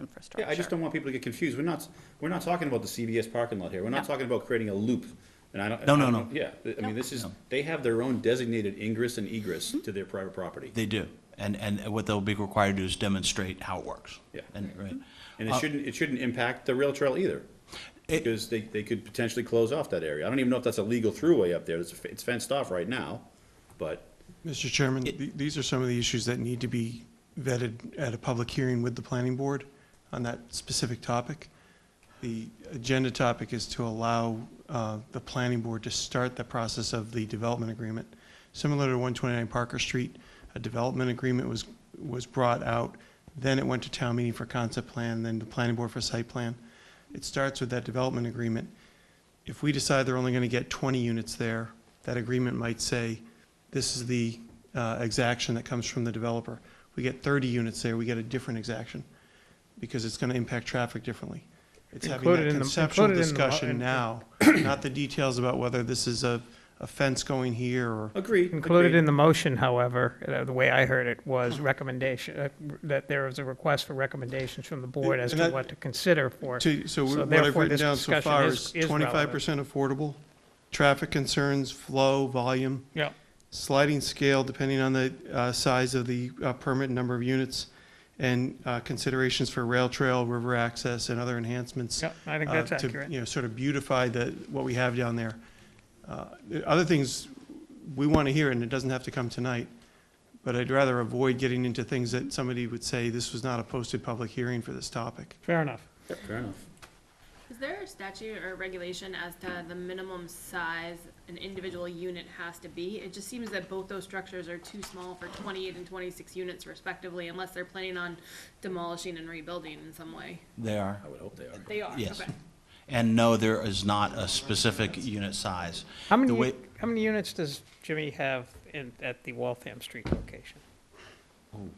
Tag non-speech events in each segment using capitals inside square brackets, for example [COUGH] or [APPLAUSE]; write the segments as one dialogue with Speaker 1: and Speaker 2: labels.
Speaker 1: infrastructure.
Speaker 2: Yeah, I just don't want people to get confused. We're not, we're not talking about the CVS parking lot here. We're not
Speaker 1: No.
Speaker 2: talking about creating a loop. And I don't.
Speaker 3: No, no,
Speaker 2: I don't-
Speaker 3: no.
Speaker 2: Yeah, I mean, this is, they have their own designated ingress and egress to their private property.
Speaker 3: They do. And, and what they'll be required to do is demonstrate how it works.
Speaker 2: Yeah.
Speaker 3: And, right.
Speaker 2: And it shouldn't, it shouldn't impact the rail trail either.
Speaker 3: Uh, It-
Speaker 2: Because they, they could potentially close off that area. I don't even know if that's a legal throughway up there. It's, it's fenced off right now, but.
Speaker 4: Mr. Chairman, th- these are some of the issues that need to be vetted at a public hearing with the planning board on that specific topic. The agenda topic is to allow uh, the planning board to start the process of the development agreement. Similar to 129 Parker Street, a development agreement was, was brought out, then it went to town meeting for concept plan, then the planning board for site plan. It starts with that development agreement. If we decide they're only going to get 20 units there, that agreement might say, this is the uh, exaction that comes from the developer. We get 30 units there, we get a different exaction, because it's going to impact traffic differently. It's having
Speaker 5: Included
Speaker 4: that
Speaker 5: in the-
Speaker 4: conceptual
Speaker 5: included in the mo-
Speaker 4: discussion
Speaker 5: in- [CLEARS THROAT]
Speaker 4: now, not the details about whether this is a a fence going here or
Speaker 2: Agreed.
Speaker 5: Included
Speaker 2: agreed.
Speaker 5: in the motion, however, uh, the way I heard it was recommendation, uh, that there was a request for recommendations from the board as
Speaker 4: And
Speaker 5: to
Speaker 4: that-
Speaker 5: what to consider for.
Speaker 4: To, so
Speaker 5: So
Speaker 4: what I've
Speaker 5: therefore,
Speaker 4: written
Speaker 5: this
Speaker 4: down so
Speaker 5: discussion
Speaker 4: far
Speaker 5: is-
Speaker 4: is
Speaker 5: is
Speaker 4: twenty-five percent affordable, traffic concerns, flow, volume,
Speaker 5: Yeah.
Speaker 4: sliding scale depending on the, uh, size of the, uh, permit and number of units, and, uh, considerations for rail trail, river access, and other enhancements.
Speaker 5: Yeah, I think
Speaker 4: uh,
Speaker 5: that's
Speaker 4: to,
Speaker 5: accurate.
Speaker 4: You know, sort of beautify the, what we have down there. Uh, the Other things we want to hear, and it doesn't have to come tonight, but I'd rather avoid getting into things that somebody would say, this was not a posted public hearing for this topic.
Speaker 5: Fair enough.
Speaker 2: Fair enough.
Speaker 6: Is there a statute or regulation as to the minimum size an individual unit has to be? It just seems that both those structures are too small for twenty-eight and twenty-six units respectively, unless they're planning on demolishing and rebuilding in some way.
Speaker 3: They are.
Speaker 2: I would hope they are.
Speaker 6: They are,
Speaker 3: Yes.
Speaker 6: okay.
Speaker 3: And no, there is not a specific unit size.
Speaker 5: How many,
Speaker 3: The way-
Speaker 5: u- how many units does Jimmy have in, at the Waltham Street location?
Speaker 3: Oh.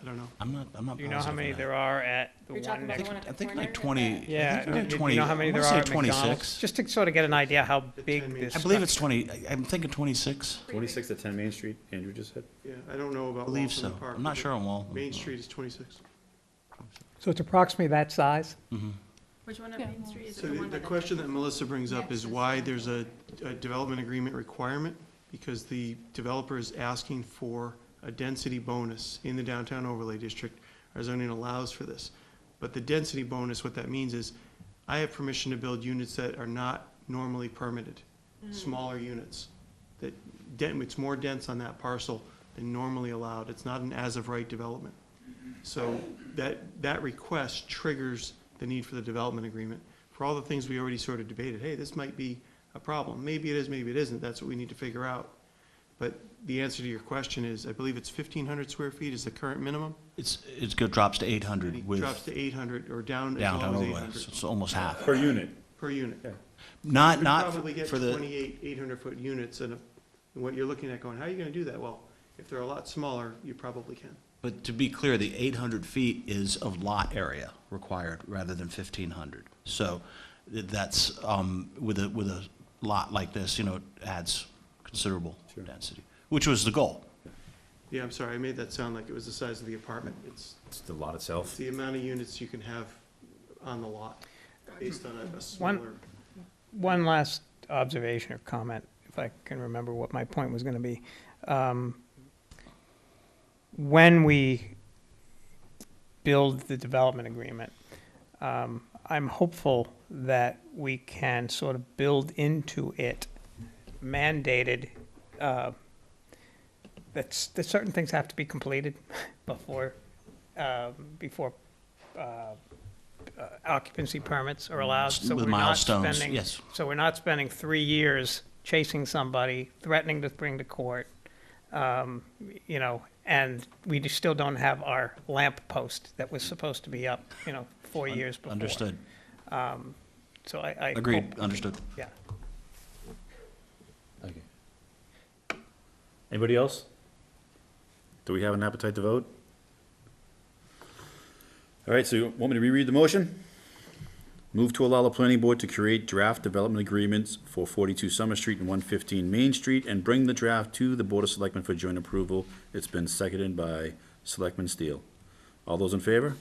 Speaker 4: I don't know.
Speaker 3: I'm not, I'm not
Speaker 5: Do you know how
Speaker 3: positive
Speaker 5: many
Speaker 3: on that.
Speaker 5: there are at the
Speaker 6: You're
Speaker 5: one
Speaker 6: talking about
Speaker 5: next?
Speaker 6: the one at
Speaker 3: I
Speaker 6: the
Speaker 3: think
Speaker 6: corner?
Speaker 3: like 20.
Speaker 5: Yeah, uh,
Speaker 3: I think we had
Speaker 5: do you- do
Speaker 3: 20.
Speaker 5: you know how many
Speaker 3: I
Speaker 5: there
Speaker 3: wanna
Speaker 5: are
Speaker 3: say
Speaker 5: at McDonald's?
Speaker 3: 26.
Speaker 5: Just to sort of get an idea how big
Speaker 4: ten
Speaker 5: this.
Speaker 3: I believe it's
Speaker 5: structure-
Speaker 3: 20, I- I'm thinking 26.
Speaker 2: Twenty-six at ten Main Street, Andrew just said.
Speaker 4: Yeah, I don't know about
Speaker 3: I believe
Speaker 4: Waltham
Speaker 3: so.
Speaker 4: Park.
Speaker 3: I'm not
Speaker 4: but
Speaker 3: sure on Waltham.
Speaker 4: Main Street is 26.
Speaker 7: So it's approximately that size?
Speaker 6: Which one on Main Street is it
Speaker 4: So
Speaker 6: the
Speaker 4: the,
Speaker 6: one by
Speaker 4: the
Speaker 6: the-
Speaker 4: question that Melissa brings up is why there's a, a development agreement requirement, because the developer is asking for a density bonus in the downtown overlay district. Our zoning allows for this. But the density bonus, what that means is, I have permission to build units that are not normally permitted,
Speaker 6: Mm.
Speaker 4: smaller units. That, den- it's more dense on that parcel than normally allowed. It's not an as-of-right development. So that, that request triggers the need for the development agreement. For all the things we already sort of debated, hey, this might be a problem. Maybe it is, maybe it isn't. That's what we need to figure out. But the answer to your question is, I believe it's fifteen hundred square feet is the current minimum.
Speaker 3: It's, it go- drops to
Speaker 4: And it
Speaker 3: 800 with
Speaker 4: drops to eight hundred or down as
Speaker 3: downtown
Speaker 4: low as eight
Speaker 3: overlay.
Speaker 4: hundred
Speaker 3: So It's almost half.
Speaker 2: Per unit.
Speaker 4: per unit.
Speaker 3: Not,
Speaker 4: We'd
Speaker 3: not
Speaker 4: probably get
Speaker 3: for the,
Speaker 4: twenty-eight, eight hundred foot units and uh, what you're looking at going, how are you gonna do that? Well, if they're a lot smaller, you probably can.
Speaker 3: but to be clear, the 800 feet is of lot area required rather than 1,500. So th- that's, um, with a, with a lot like this, you know, it adds considerable density, which was the goal.
Speaker 4: Yeah, I'm sorry, I made that sound like it was the size of the apartment. It's
Speaker 8: It's the lot itself.
Speaker 4: It's the amount of units you can have on the lot, based on a- a
Speaker 5: One-
Speaker 4: smaller.
Speaker 5: One last observation or comment, if I can remember what my point was going to be. Um, When we build the development agreement, um, I'm hopeful that we can sort of build into it mandated, uh, that's, that certain things have to be completed [LAUGHS] before, um, before uh, uh, occupancy permits are allowed. So
Speaker 3: With
Speaker 5: we're not
Speaker 3: milestones,
Speaker 5: spending-
Speaker 3: yes.
Speaker 5: So we're not spending three years chasing somebody, threatening to bring to court, um, you know, and we just still don't have our lamp post that was supposed to be up, you know, four years before.
Speaker 3: Understood.
Speaker 5: So I, I.
Speaker 3: Agreed,
Speaker 5: hope-
Speaker 3: understood.
Speaker 5: Yeah.
Speaker 8: Okay. Anybody else? Do we have an appetite to vote?
Speaker 2: All right, so you want me to reread the motion? Move to allow the planning board to create draft development agreements for forty-two Summer Street and one fifteen Main Street and bring the draft to the Board of Selectmen for joint approval. It's been seconded by Selectman Steele. All those in favor?